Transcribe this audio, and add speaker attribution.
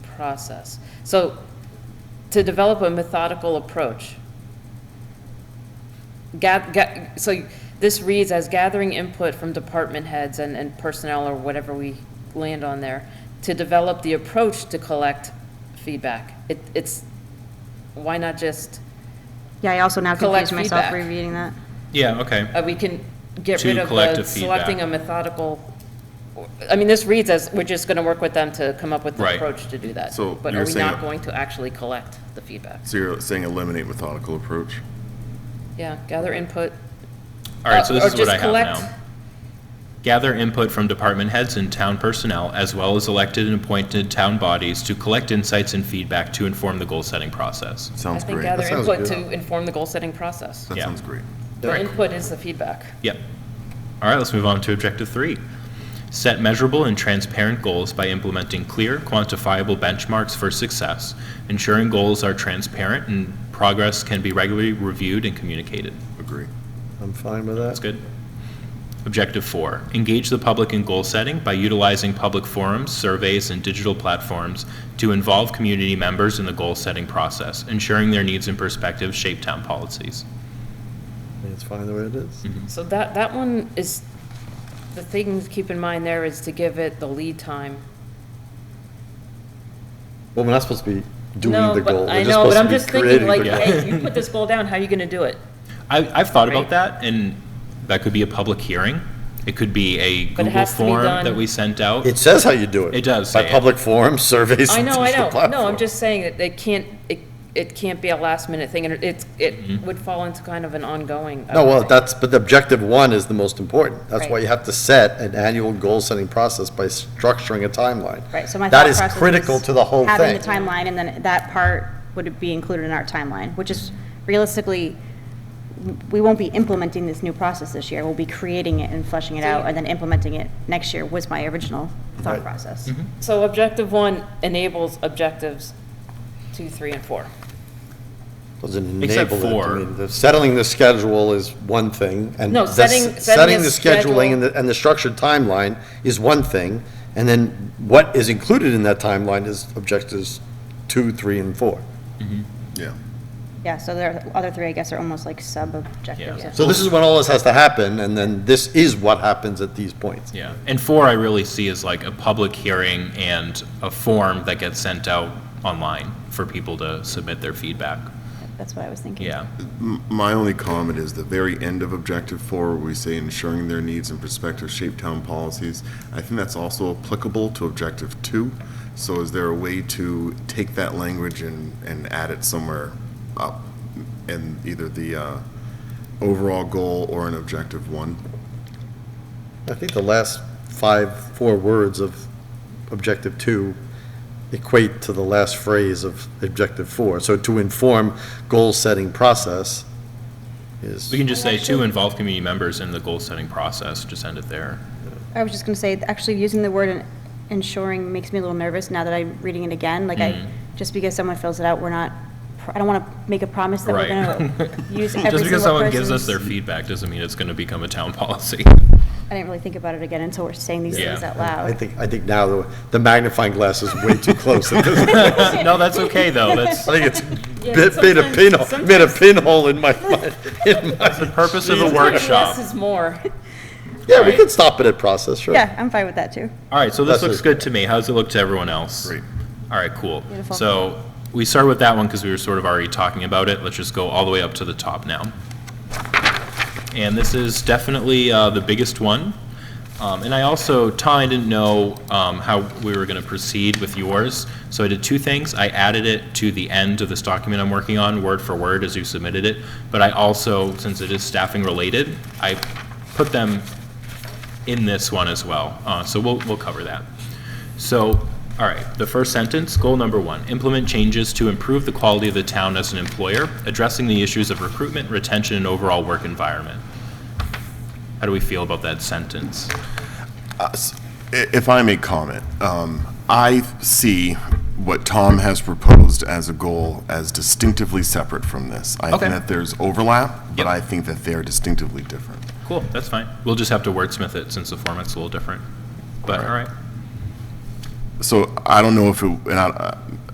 Speaker 1: process. So to develop a methodical approach. Gath, ga, so this reads as gathering input from department heads and, and personnel or whatever we land on there to develop the approach to collect feedback. It, it's, why not just,
Speaker 2: Yeah, I also now
Speaker 1: Collect
Speaker 2: confused myself
Speaker 1: feedback.
Speaker 2: rereading that.
Speaker 3: Yeah, okay.
Speaker 1: uh, we can get
Speaker 3: To
Speaker 1: rid of the
Speaker 3: collective feedback.
Speaker 1: selecting a methodical, I mean, this reads as we're just gonna work with them to come up with an
Speaker 3: Right.
Speaker 1: approach to do that.
Speaker 4: So
Speaker 1: But
Speaker 4: you're
Speaker 1: are we
Speaker 4: saying-
Speaker 1: not going to actually collect the feedback?
Speaker 4: So you're saying eliminate methodical approach?
Speaker 1: Yeah, gather input,
Speaker 3: All right, so
Speaker 1: Uh,
Speaker 3: this
Speaker 1: or
Speaker 3: is what
Speaker 1: just
Speaker 3: I have
Speaker 1: collect-
Speaker 3: now. Gather input from department heads and town personnel, as well as elected and appointed town bodies, to collect insights and feedback to inform the goal-setting process.
Speaker 1: I
Speaker 4: Sounds
Speaker 1: think
Speaker 4: great.
Speaker 1: gather
Speaker 4: That sounds
Speaker 1: input
Speaker 4: good.
Speaker 1: to inform the goal-setting process.
Speaker 4: That
Speaker 3: Yeah.
Speaker 4: sounds great.
Speaker 1: The input is the feedback.
Speaker 3: Yep. All right, let's move on to objective three. Set measurable and transparent goals by implementing clear, quantifiable benchmarks for success, ensuring goals are transparent and progress can be regularly reviewed and communicated.
Speaker 4: Agree.
Speaker 5: I'm fine with
Speaker 3: That's
Speaker 5: that.
Speaker 3: good. Objective four, engage the public in goal setting by utilizing public forums, surveys, and digital platforms to involve community members in the goal-setting process, ensuring their needs and perspectives shape town policies.
Speaker 5: I think It's fine the way it is.
Speaker 3: Mm-hmm.
Speaker 1: So that, that one is, the thing to keep in mind there is to give it the lead time.
Speaker 5: Well, we're not supposed to be doing
Speaker 1: No,
Speaker 5: the
Speaker 1: but
Speaker 5: goal.
Speaker 1: I know, but I'm just thinking like,
Speaker 3: goal.
Speaker 1: hey, you put this goal down, how are you gonna do it?
Speaker 3: I, I've thought about
Speaker 1: Right.
Speaker 3: that, and that could be a public hearing. It could be a
Speaker 1: But it
Speaker 3: Google
Speaker 1: has to be
Speaker 3: form
Speaker 1: done-
Speaker 3: that we sent out.
Speaker 5: It says how you do it.
Speaker 3: It does
Speaker 5: By
Speaker 3: say it.
Speaker 5: public forum, surveys.
Speaker 1: I
Speaker 5: and
Speaker 1: know, I
Speaker 5: digital
Speaker 1: know, no, I'm
Speaker 5: platforms.
Speaker 1: just saying that they can't, it, it can't be a last minute thing, and it's,
Speaker 3: Mm-hmm.
Speaker 1: it would fall into kind of an ongoing. uh,
Speaker 5: No, well, that's, but the objective one is the most important. That's why
Speaker 1: Right.
Speaker 5: you have to set an annual goal-setting process by structuring a timeline.
Speaker 2: Right, so my
Speaker 5: That
Speaker 2: thought
Speaker 5: is
Speaker 2: process
Speaker 5: critical
Speaker 2: was
Speaker 5: to the whole
Speaker 2: Having the
Speaker 5: thing.
Speaker 2: timeline, and then that part would be included in our timeline, which is realistically, we won't be implementing this new process this year. We'll be creating it and fleshing it out, and then implementing it next year was my original thought
Speaker 5: Right. Mm-hmm.
Speaker 2: process.
Speaker 1: So objective one enables objectives two, three, and four.
Speaker 5: Doesn't
Speaker 3: Except
Speaker 5: enable it.
Speaker 3: for-
Speaker 5: I mean, the- Settling the schedule is one thing, and.
Speaker 1: No,
Speaker 5: the s-
Speaker 1: setting- setting
Speaker 5: Setting
Speaker 1: a
Speaker 5: the
Speaker 1: schedule-
Speaker 5: scheduling and the, and the structured timeline is one thing, and then what is included in that timeline is objectives two, three, and four.
Speaker 4: Yeah.
Speaker 2: Yeah, so the other three, I guess, are almost like sub-objectives.
Speaker 1: Yeah.
Speaker 2: if
Speaker 5: So this is when all this has to happen, and then this is what happens at these points.
Speaker 3: Yeah, and four I really see as like a public hearing and a form that gets sent out online for people to submit their feedback.
Speaker 2: That's what I was thinking.
Speaker 3: Yeah,
Speaker 4: M- My only comment is the very end of objective four, where we say ensuring their needs and perspectives shape town policies. I think that's also applicable to objective two. So is there a way to take that language and, and add it somewhere up in either the uh, overall goal or in objective one?
Speaker 5: I think the last five, four words of objective two equate to the last phrase of objective four. So to inform goal-setting process is,
Speaker 3: we can just say to involve community members in the goal-setting process, just end it there.
Speaker 2: I was just gonna say, actually, using the word en- ensuring makes me a little nervous now that I'm reading it again. Like,
Speaker 3: Mm.
Speaker 2: I, just because someone fills it out, we're not, pr- I don't wanna make a promise that we're
Speaker 3: Right.
Speaker 2: gonna use every single
Speaker 3: Just because someone gives us
Speaker 2: person's-
Speaker 3: their feedback doesn't mean it's gonna become a town policy.
Speaker 2: I didn't really think about it again until we're saying these
Speaker 3: Yeah.
Speaker 2: things out
Speaker 5: I
Speaker 2: loud.
Speaker 5: think, I think now the- the magnifying glass is way too close. I
Speaker 3: No, that's okay, though, that's
Speaker 5: think it's bit- made a pinhole, made a pinhole in my mind.
Speaker 3: the purpose of a
Speaker 1: Less
Speaker 3: workshop.
Speaker 1: is more.
Speaker 5: Yeah, we could stop it at process, sure.
Speaker 2: Yeah, I'm fine with that, too.
Speaker 3: All right, so this
Speaker 5: That's
Speaker 3: looks
Speaker 5: it.
Speaker 3: good to me, how's it look to everyone else?
Speaker 4: Great.
Speaker 3: All right, cool.
Speaker 2: Beautiful.
Speaker 3: So we start with that one because we were sort of already talking about it. Let's just go all the way up to the top now. And this is definitely uh, the biggest one. Um, And I also, Tom, I didn't know um, how we were going to proceed with yours. So I did two things. I added it to the end of this document I'm working on, word for word, as you submitted it. But I also, since it is staffing related, I put them in this one as well. Uh, So we'll, we'll cover that. So, all right, the first sentence, goal number one, implement changes to improve the quality of the town as an employer, addressing the issues of recruitment, retention, and overall work environment. How do we feel about that sentence?
Speaker 4: us- i- if I may comment, um, I see what Tom has proposed as a goal as distinctively separate from this. I
Speaker 3: Okay.
Speaker 4: think that there's overlap,
Speaker 3: Yep.
Speaker 4: but I think that they're distinctively different.
Speaker 3: Cool, that's fine. We'll just have to wordsmith it since the format's a little different. But, all right,
Speaker 4: So I don't know if it, and I,